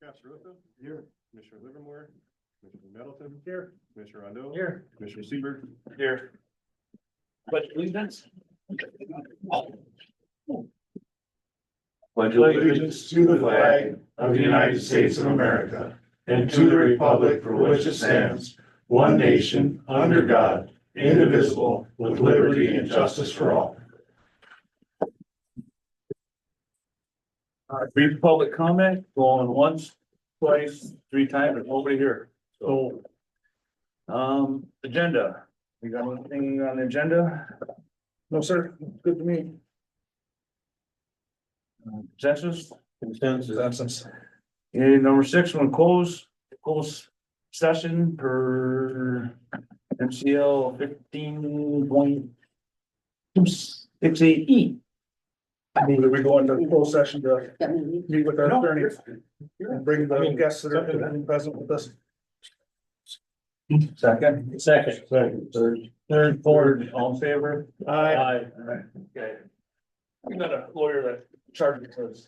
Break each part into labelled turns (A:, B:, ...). A: Commissioner Russo? Here. Commissioner Livermore? Commissioner Middleton? Here. Commissioner Rondo?
B: Here.
A: Commissioner Seaver?
B: Here. But allegiance.
C: Pledge allegiance to the flag of the United States of America and to the republic for which it stands, one nation, under God, indivisible, with liberty and justice for all.
B: All right, Brief public comment, going once, twice, three times, there's nobody here, so. Um, agenda, we got anything on the agenda? No, sir, good to me. Uh, Consensus? Consensus. And number six, one close, close session per MCL fifteen point two six eight E.
D: I mean, we go into closed session to meet with our attorney and bring the guests that are present with us.
B: Second. Second. Second. Third. Third, fourth, all in favor?
D: Aye.
B: Aye. Okay. We got a lawyer that charges us.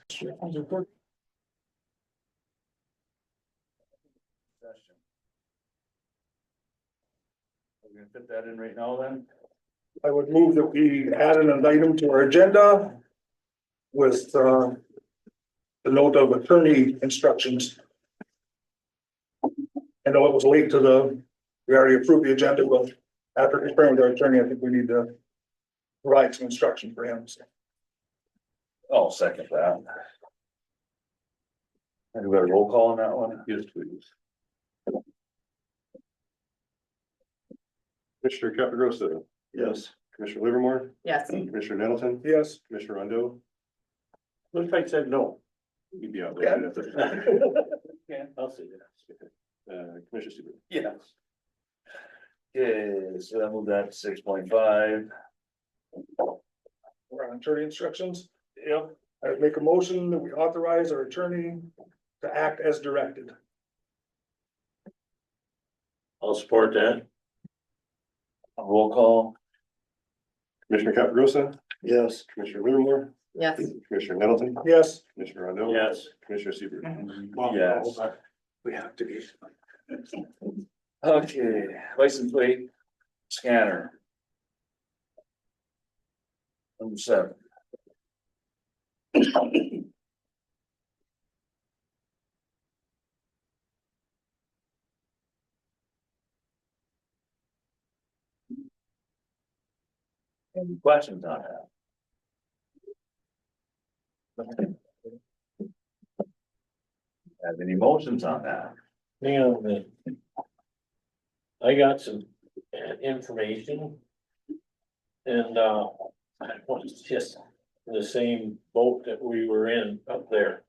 B: We're gonna fit that in right now then?
D: I would move that we added an item to our agenda with, uh, the note of attorney instructions. I know it was late to the, we already approved the agenda, but after confirming with our attorney, I think we need to provide some instruction for him. so.
B: I'll second that. And we got a roll call on that one? Yes, please.
A: Commissioner Capagrosa?
B: Yes.
A: Commissioner Livermore?
E: Yes.
A: Commissioner Middleton?
D: Yes.
A: Commissioner Rondo?
B: What if I said no?
A: You'd be out.
B: Yeah,
A: there.
B: I'll say yes.
A: Uh, Commissioner Seaver?
B: Yes. Okay, so that moved that to six point five.
D: We're on attorney instructions.
B: Yep.
D: I would make a motion that we authorize our attorney to act as directed.
B: I'll support that. A roll call.
A: Commissioner Capagrosa?
B: Yes.
A: Commissioner Livermore?
E: Yes.
A: Commissioner Middleton?
D: Yes,
A: Commissioner Rondo?
B: Yes.
A: Commissioner Seaver?
B: Mm-hmm. Yes.
A: We have to be.
B: Okay, license plate scanner. Number seven. Any questions on that? Have any motions on that?
F: Hang on a minute. uh, I got some uh, information. And, uh, I was just the same boat that we were in up there.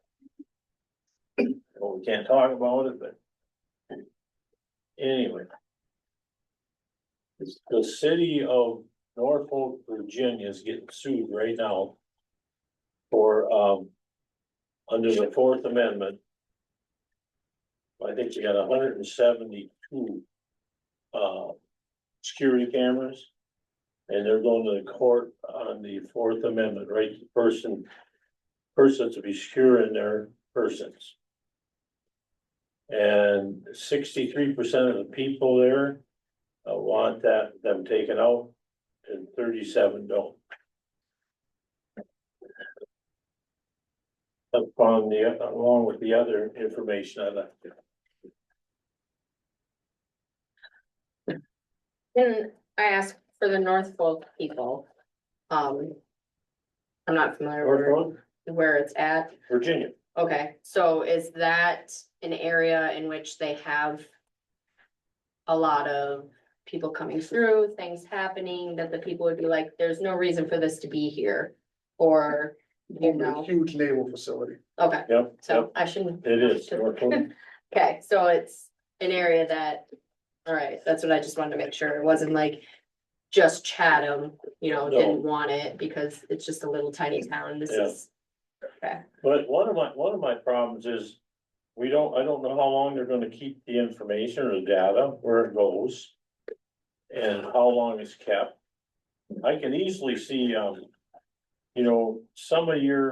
F: Well, we can't talk about it, but. Anyway. It's- The city of Norfolk, Virginia is getting sued right now. For, um, under the Fourth Amendment. I think they got hundred and seventy-two uh, security cameras. And they're going to the court on the Fourth Amendment, right, The person, persons to be secure in their persons. And sixty-three percent of the people there uh, want that, them taken out, and thirty-seven don't. Upon the, along with the other information I left. you.
E: And I asked for the North Fork people. Um. I'm not familiar where,
F: Norfolk,
E: where it's at.
F: Virginia.
E: Okay, so is that an area in which they have? A lot of people coming through, things happening that the people would be like, there's no reason for this to be here. Or, you
D: a
E: know,
D: huge naval facility.
E: okay,
F: Yep, yep,
E: so I shouldn't.
F: it is. Norfolk.
E: Okay, so it's an area that, all right, that's what I just wanted to make sure. It wasn't like just Chatham, you know,
F: No.
E: didn't want it because it's just a little tiny town. This
F: Yeah.
E: is. Okay,
F: But one of my, one of my problems is, we don't, I don't know how long they're gonna keep the information or the data, where it goes. And how long it's kept. I can easily see, um, you know, some of your